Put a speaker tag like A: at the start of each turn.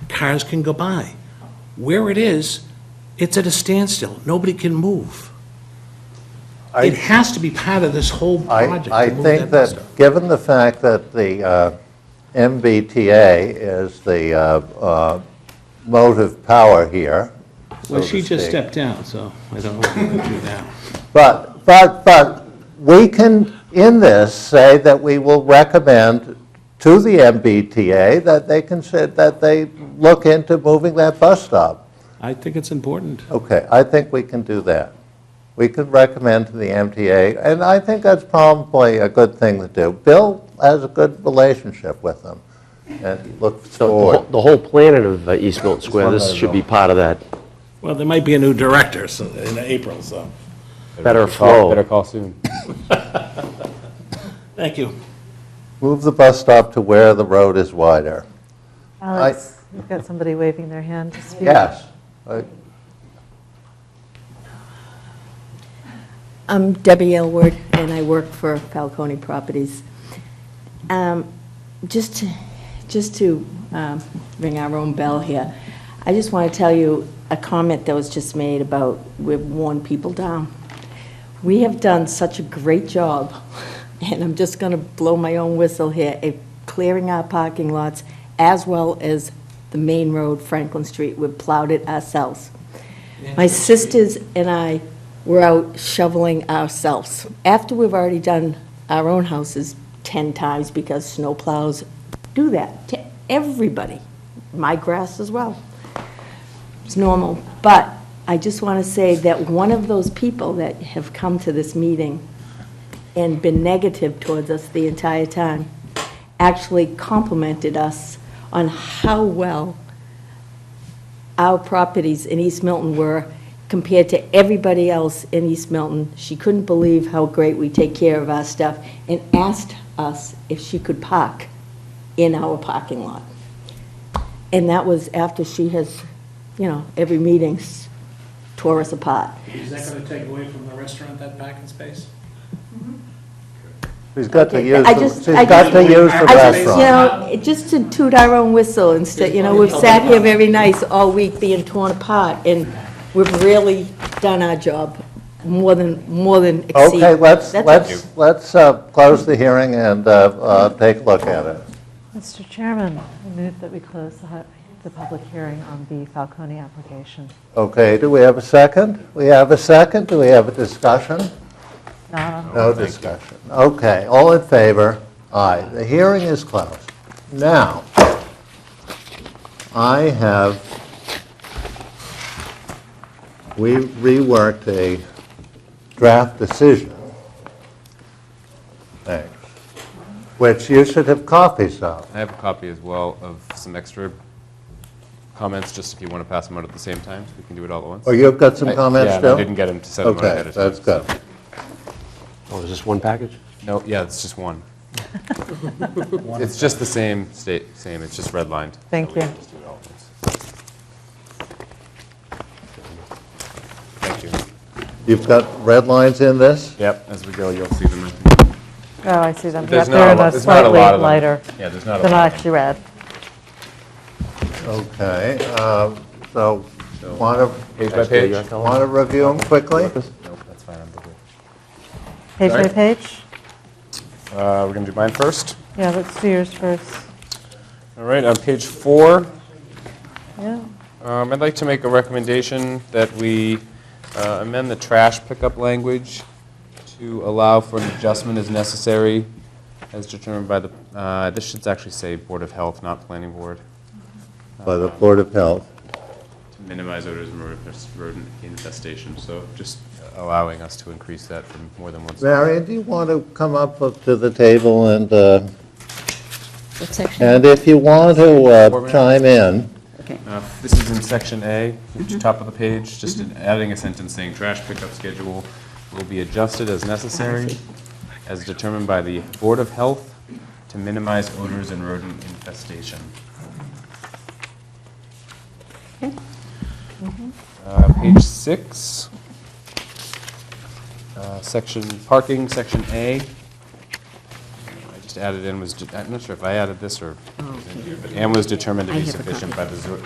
A: cars can go by. Where it is, it's at a standstill. Nobody can move. It
B: I,
A: has to be part of this whole
B: I,
A: project
B: I
A: to move
B: think
A: that bus
B: that,
A: stop.
B: given the fact that the uh, MBTA is the uh, uh, motive power here, so
A: Well,
B: to
A: she just
B: speak.
A: stepped down, so I don't know what to do now.
B: But, but, but, we can, in this, say that we will recommend to the MBTA that they consider, that they look into moving that bus stop.
A: I think it's important.
B: Okay, I think we can do that. We could recommend to the MTA, and I think that's probably a good thing to do. Bill has a good relationship with them, and looks
C: The- The
B: forward.
C: whole- the whole planet of uh, East Milton Square,
B: one
C: this
B: that I
C: should be
B: know.
C: part of that
A: Well, there might be a new director so- in April, so,
C: better
D: Call-
C: flow.
D: Better call soon.
A: thank you.
B: Move the bus stop to where the road is wider.
E: Alex, we've got somebody waving their hand to speak.
B: Yes. I-
F: I'm Debbie Elward, and I work for Falcone Properties. Um, Just, to- just to um, ring our own bell here, I just want to tell you a comment that was just made about we've worn people down. We have done such a great job, and I'm just going to blow my own whistle here, of clearing our parking lots as well as the main road, Franklin Street. We've plowed it ourselves. My sisters and I were out shoveling ourselves, after we've already done our own houses 10 times because snowplows do that to everybody, my grass as well. It's normal. But I just want to say that one of those people that have come to this meeting and been negative towards us the entire time actually complimented us on how well our properties in East Milton were compared to everybody else in East Milton. She couldn't believe how great we take care of our stuff and asked us if she could park in our parking lot. And that was after she has, you know, every meeting's tore us apart.
G: Is that going to take away from the restaurant, that parking space?
B: She's got to
F: Okay,
B: use,
F: I
B: the-
F: just-
B: she's
F: I
B: got
F: just-
B: to use the
F: I just, you
B: restaurant.
F: know, it- just to toot our own whistle instead, you know, we've sat here very nice all week being torn apart, and we've really done our job more than, more than exceed.
B: Okay, let's,
F: That's
B: let's, let's uh, close the hearing and uh, uh, take a look at it.
E: Mr. Chairman, I move that we close the hu- the public hearing on the Falcone application.
B: Okay, do we have a second? We have a second, do we have a discussion?
E: Not on
B: No discussion. Okay, all in favor? Aye. The hearing is closed. Now, I have, we reworked a draft decision. Thanks. Which you should have copies of.
D: I have a copy as well of some extra comments, just if you want to pass them out at the same time, so we can do it all at once.
B: Or you've got Oh, some
D: I-
B: comments
D: yeah,
B: still?
D: I didn't get him to send them out ahead
B: Okay,
D: of time.
B: that's good.
C: Oh, is this one package?
D: No, yeah, it's just one. It's just the same state, same, it's just redlined.
E: Thank
D: So we can
E: you.
D: just do it all at once. Thank you.
B: You've got red lines in this?
D: Yep, as we go, you'll see them. I think.
E: Oh, I see them. Yep,
D: There's
E: They're
D: not
E: in
D: a lot,
E: a
D: there's not a
E: slightly
D: lot of them.
E: lighter,
D: Yeah, there's not a
E: they're
D: lot
E: not
D: of them.
E: actually red.
B: Okay, uh, so want to,
D: Page by page?
B: want to review them quickly?
D: Nope, that's fine, I'm good.
E: Page by
D: Sorry?
E: page?
D: Uh, We're going to do mine first.
E: Yeah, let's do yours first.
D: All right, on page four,
E: Yeah.
D: Um, I'd like to make a recommendation that we uh, amend the trash pickup language to allow for an adjustment as necessary as determined by the, uh, this should actually say Board of Health, not Planning Board,
B: By the Board of Health.
D: to minimize odors and rodent- rodent infestation, so just allowing us to increase that from more than once.
B: Marion, do you want to come up to the table and, uh,
F: What section?
B: and if you want to
D: Four
B: uh,
D: minutes.
B: chime in,
D: Uh, This is in section A,
F: Mm-hmm.
D: which is top of the page, just in adding a sentence saying trash pickup schedule will be adjusted as necessary, as determined by the Board of Health to minimize odors and rodent infestation. Uh, Page six, uh, section, parking, section A. I just added in was, de- I'm not sure if I added this or, and was determined to
F: Oh, I
D: be
F: have a
D: sufficient by the zo-